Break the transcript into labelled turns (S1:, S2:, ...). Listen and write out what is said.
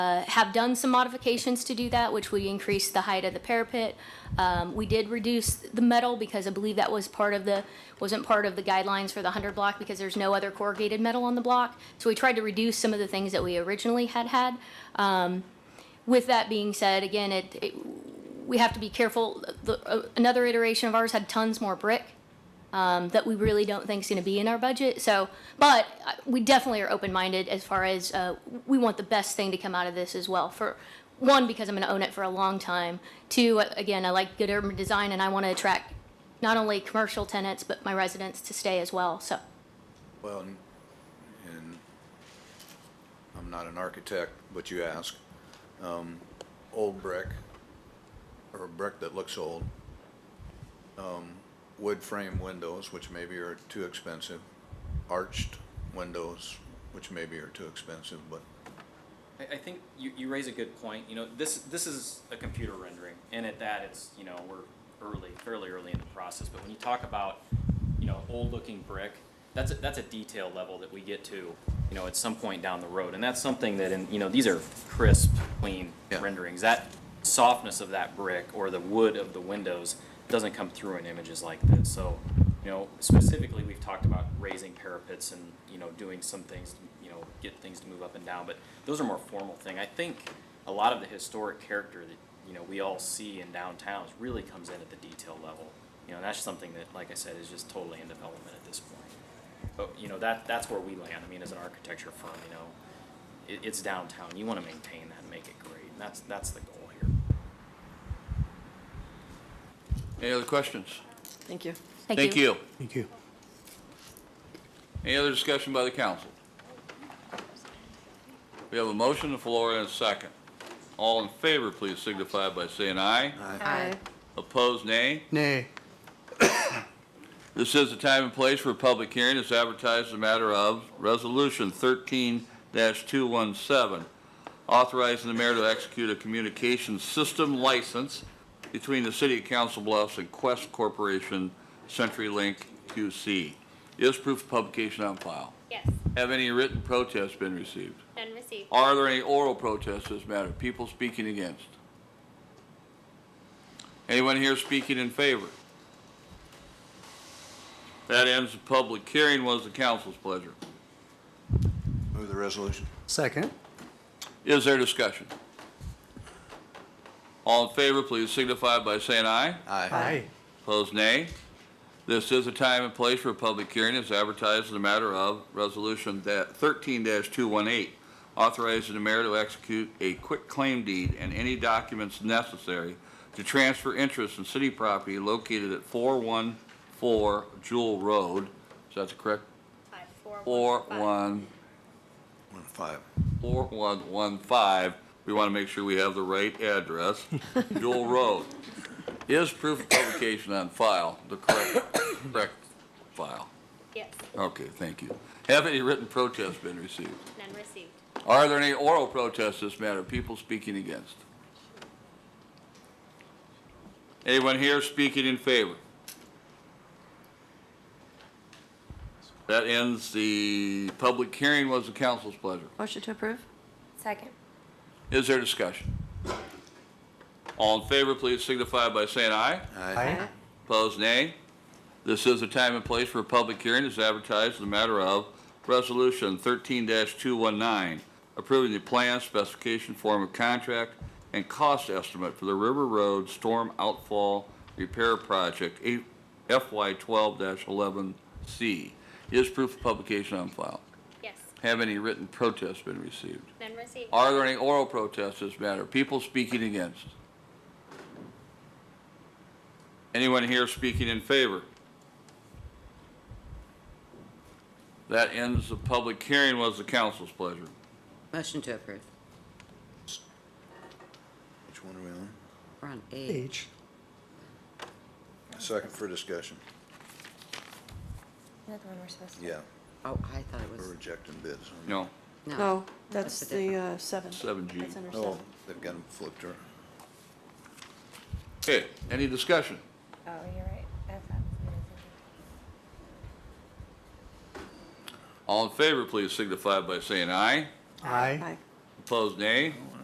S1: uh, have done some modifications to do that, which we increased the height of the parapet. Um, We did reduce the metal because I believe that was part of the, wasn't part of the guidelines for the 100 block because there's no other corrugated metal on the block. So we tried to reduce some of the things that we originally had had. Um, With that being said, again, it, it- we have to be careful. The- uh, Another iteration of ours had tons more brick um, that we really don't think is going to be in our budget. So, but uh, we definitely are open-minded as far as uh, we want the best thing to come out of this as well. For one, because I'm going to own it for a long time. Two, uh, again, I like good urban design and I want to attract not only commercial tenants but my residents to stay as well. So,
S2: Well, and- and I'm not an architect, but you ask, um, old brick, or brick that looks old, um, wood frame windows, which maybe are too expensive, arched windows, which maybe are too expensive, but
S3: I, I think you, you raise a good point. You know, this this is a computer rendering, and at that, it's you know we're early, fairly early in the process. But when you talk about you know old-looking brick, that's a, that's a detail level that we get to you know at some point down the road, and that's something that in you know these are crisp, clean
S2: Yeah.
S3: renderings. That softness of that brick or the wood of the windows doesn't come through in images like this. So. You know, specifically, we've talked about raising parapets and, you know, doing some things, you know, get things to move up and down, but those are more formal thing. I think a lot of the historic character that, you know, we all see in downtowns really comes in at the detail level. You know, and that's something that, like I said, is just totally in development at this point. But, you know, that, that's where we land. I mean, as an architecture firm, you know, it, it's downtown. You wanna maintain that and make it great. And that's, that's the goal here.
S4: Any other questions?
S5: Thank you.
S1: thank,
S4: you.
S6: Thank you.
S4: Any other discussion by the council? We have a motion on the floor and a second. All in favor, please signify by saying aye.
S5: Aye.
S4: Opposed, nay.
S6: Nay.
S4: This is the time and place for a public hearing. It's advertised as a matter of Resolution thirteen two one seven, authorizing the mayor to execute a communication system license between the city of Council Bluffs and Quest Corporation CenturyLink QC. Is proof of publication on file?
S7: Yes,
S4: Have any written protests been received?
S7: none received.
S4: Are there any oral protests to this matter? People speaking against? Anyone here speaking in favor? That ends the public hearing. What is the council's pleasure?
S2: move the resolution.
S6: Second.
S4: Is there discussion? All in favor, please signify by saying aye.
S6: Aye.
S4: Opposed, nay. This is a time and place for a public hearing as advertised in the matter of Resolution that thirteen two one eight, authorizing the mayor to execute a quick claim deed and any documents necessary to transfer interest in city property located at four one four Jewel Road. Is that the correct?
S7: Five, four, one,
S4: Four
S7: five.
S4: one,
S2: One five.
S4: four one one five. We want to make sure we have the right address. Jewel Road. Is proof of publication on file the correct, correct file?
S7: Yes,
S4: Okay, thank you. Have any written protests been received?
S7: none received.
S4: Are there any oral protests this matter, people speaking against? Anyone here speaking in favor? That ends the public hearing. Was the council's pleasure?
S5: Motion to approve?
S7: Second.
S4: Is there discussion? All in favor, please signify by saying aye.
S6: Aye.
S4: Opposed, nay. This is the time and place for a public hearing as advertised in the matter of Resolution 13-219, approving the plan, specification, form of contract, and cost estimate for the River Road Storm Outfall Repair Project eight- FY 12-11C. Is proof of publication on file?
S7: Yes,
S4: Have any written protests been received?
S7: none received.
S4: Are there any oral protests this matter? People speaking against? Anyone here speaking in favor? That ends the public hearing. Was the council's pleasure?
S8: Motion to approve.
S2: Which one are we on?
S8: We're on A.
S6: H.
S2: Second for discussion.
S9: Another one we're supposed to.
S2: Yeah,
S8: Oh, I thought it
S2: we're
S8: was,
S2: rejecting bids.
S4: No,
S8: no.
S9: No, that's
S8: a different-
S9: the uh, seven.
S4: 7G.
S9: That's under
S2: Oh,
S9: seven.
S2: they've got them flipped around.
S4: Okay, any discussion?
S9: Oh, you're right. I thought it was under-
S4: All in favor, please signify by saying aye.
S6: Aye.
S9: Aye.
S4: Opposed, nay.